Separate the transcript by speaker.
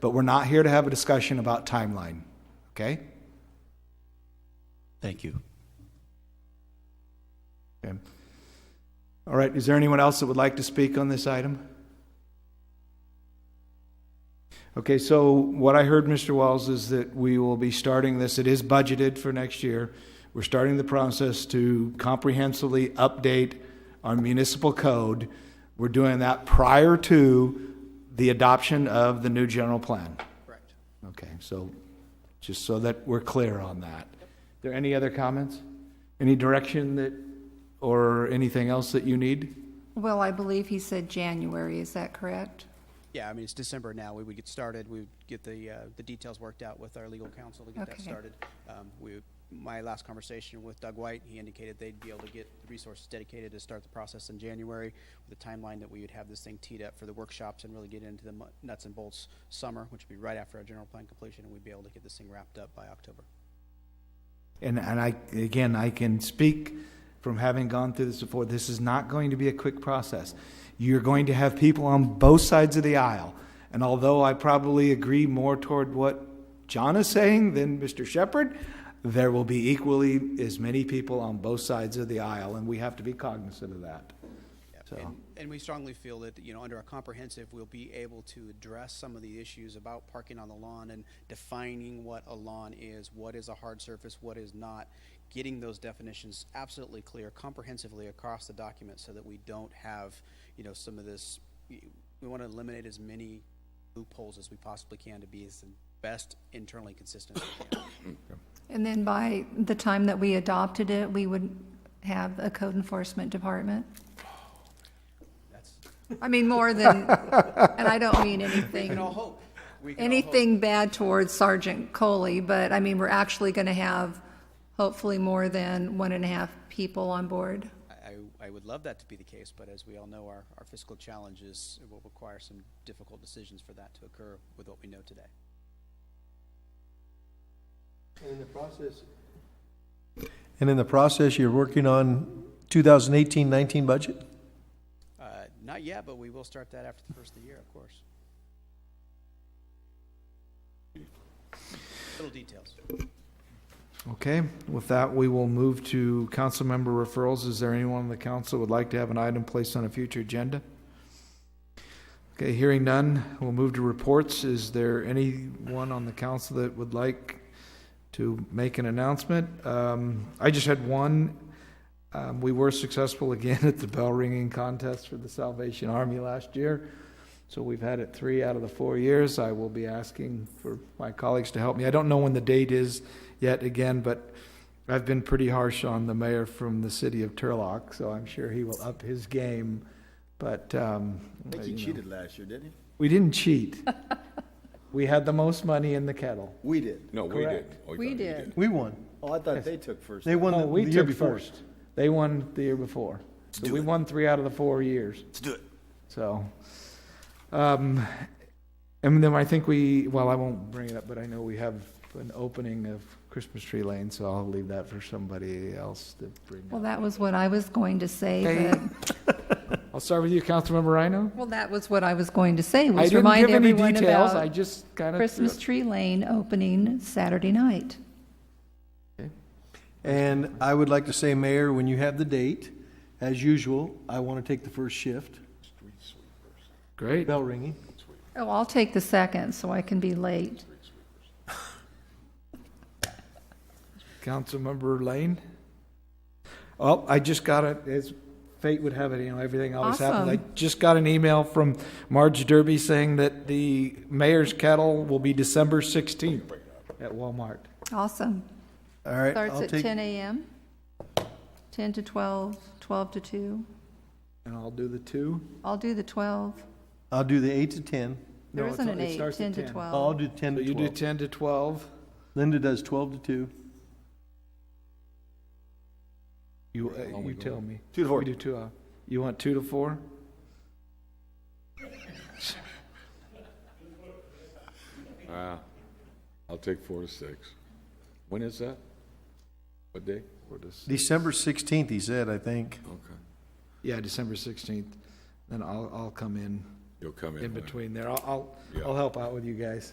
Speaker 1: but we're not here to have a discussion about timeline, okay?
Speaker 2: Thank you.
Speaker 1: Okay. All right, is there anyone else that would like to speak on this item? Okay, so what I heard, Mr. Wells, is that we will be starting this, it is budgeted for next year. We're starting the process to comprehensively update our municipal code. We're doing that prior to the adoption of the new general plan.
Speaker 3: Correct.
Speaker 1: Okay, so, just so that we're clear on that. There any other comments? Any direction that, or anything else that you need?
Speaker 4: Well, I believe he said January, is that correct?
Speaker 3: Yeah, I mean, it's December now. We would get started. We would get the, uh, the details worked out with our legal counsel to get that
Speaker 4: Okay.
Speaker 3: started. Um, we, my last conversation with Doug White, he indicated they'd be able to get the resources dedicated to start the process in January with a timeline that we would have this thing teed up for the workshops and really get into the mu- nuts and bolts summer, which would be right after our general plan completion, and we'd be able to get this thing wrapped up by October.
Speaker 1: And, and I, again, I can speak from having gone through this before, this is not going to be a quick process. You're going to have people on both sides of the aisle. And although I probably agree more toward what John is saying than Mr. Shepherd, there will be equally as many people on both sides of the aisle, and we have to be cognizant of that.
Speaker 3: Yep,
Speaker 1: So-
Speaker 3: And, and we strongly feel that, you know, under a comprehensive, we'll be able to address some of the issues about parking on the lawn and defining what a lawn is, what is a hard surface, what is not, getting those definitions absolutely clear comprehensively across the document so that we don't have, you know, some of this, we want to eliminate as many loopholes as we possibly can to be as best internally consistent as we can.
Speaker 4: And then by the time that we adopted it, we would have a code enforcement department?
Speaker 3: That's,
Speaker 4: I mean, more than, and I don't mean anything,
Speaker 3: all hope. We can all hope.
Speaker 4: anything bad towards Sergeant Coley, but I mean, we're actually going to have hopefully more than one and a half people on board.
Speaker 3: I, I would love that to be the case, but as we all know, our, our fiscal challenges will require some difficult decisions for that to occur with what we know today.
Speaker 5: And in the process. And in the process, you're working on 2018-19 budget?
Speaker 3: Uh, not yet, but we will start that after the first of the year, of course. Little details.
Speaker 1: Okay, with that, we will move to council member referrals. Is there anyone on the council would like to have an item placed on a future agenda? Okay, hearing none, we'll move to reports. Is there anyone on the council that would like to make an announcement? Um, I just had one. Um, we were successful again at the bell ringing contest for the Salvation Army last year. So we've had it three out of the four years. I will be asking for my colleagues to help me. I don't know when the date is yet again, but I've been pretty harsh on the mayor from the city of Turlock, so I'm sure he will up his game. But, um.
Speaker 6: I think he
Speaker 1: you know.
Speaker 6: cheated last year, didn't he?
Speaker 1: We didn't cheat. We had the most money in the kettle.
Speaker 6: We did.
Speaker 7: No, we
Speaker 1: Correct.
Speaker 7: did. Oh, I thought you
Speaker 5: We won.
Speaker 6: Oh, I thought they took first.
Speaker 5: They won
Speaker 1: Oh,
Speaker 5: the
Speaker 1: we
Speaker 5: the year
Speaker 1: took
Speaker 5: before.
Speaker 1: first. They won the year before. So we won three out of the four years. Let's do it. So, um, and then I think we, well, I won't bring it up, but I know we have an opening of Christmas Tree Lane, so I'll leave that for somebody else to bring
Speaker 4: Well,
Speaker 1: up.
Speaker 4: that was what I was going to say,
Speaker 1: Hey.
Speaker 4: but,
Speaker 1: I'll start with you, Councilmember Rhino.
Speaker 4: well, that was what I was going to say,
Speaker 1: I
Speaker 4: was
Speaker 1: didn't
Speaker 4: remind
Speaker 1: give any
Speaker 4: everyone
Speaker 1: details. I
Speaker 4: about
Speaker 1: just kind of
Speaker 4: Christmas Tree Lane opening Saturday night.
Speaker 5: And I would like to say, Mayor, when you have the date, as usual, I want to take the first shift,
Speaker 1: Great.
Speaker 5: bell ringing.
Speaker 4: Oh, I'll take the second, so I can be late.
Speaker 1: Councilmember Lane? Oh, I just got it, as fate would have it, you know, everything always happens. I
Speaker 4: Awesome.
Speaker 1: just got an email from Marge Derby saying that the mayor's kettle will be December 16th at Walmart.
Speaker 4: Awesome.
Speaker 5: All right,
Speaker 4: Starts
Speaker 5: I'll
Speaker 4: at
Speaker 5: take,
Speaker 4: 10 a.m., 10 to 12, 12 to 2.
Speaker 1: And I'll do the two.
Speaker 4: I'll do the 12.
Speaker 5: I'll do the 8 to 10.
Speaker 1: No,
Speaker 4: There
Speaker 1: it's
Speaker 4: isn't
Speaker 1: not-
Speaker 4: an
Speaker 1: it
Speaker 4: 8,
Speaker 1: starts at
Speaker 4: 10 to
Speaker 1: 10.
Speaker 4: 12.
Speaker 5: I'll do 10
Speaker 1: So
Speaker 5: to
Speaker 1: you do
Speaker 5: 12.
Speaker 1: 10 to 12.
Speaker 5: Linda does 12 to 2.
Speaker 1: You, uh, you tell me.
Speaker 6: Two to four.
Speaker 1: We do two, uh, you want two to four?
Speaker 7: did. Ah, I'll take four to six. When is that? What day? Four to six.
Speaker 5: December 16th, he said, I think.
Speaker 7: Okay.
Speaker 1: Yeah, December 16th. Then I'll, I'll come in,
Speaker 7: You'll come in.
Speaker 1: in
Speaker 7: later.
Speaker 1: between there. I'll, I'll-
Speaker 7: Yeah.
Speaker 1: I'll help out with you guys.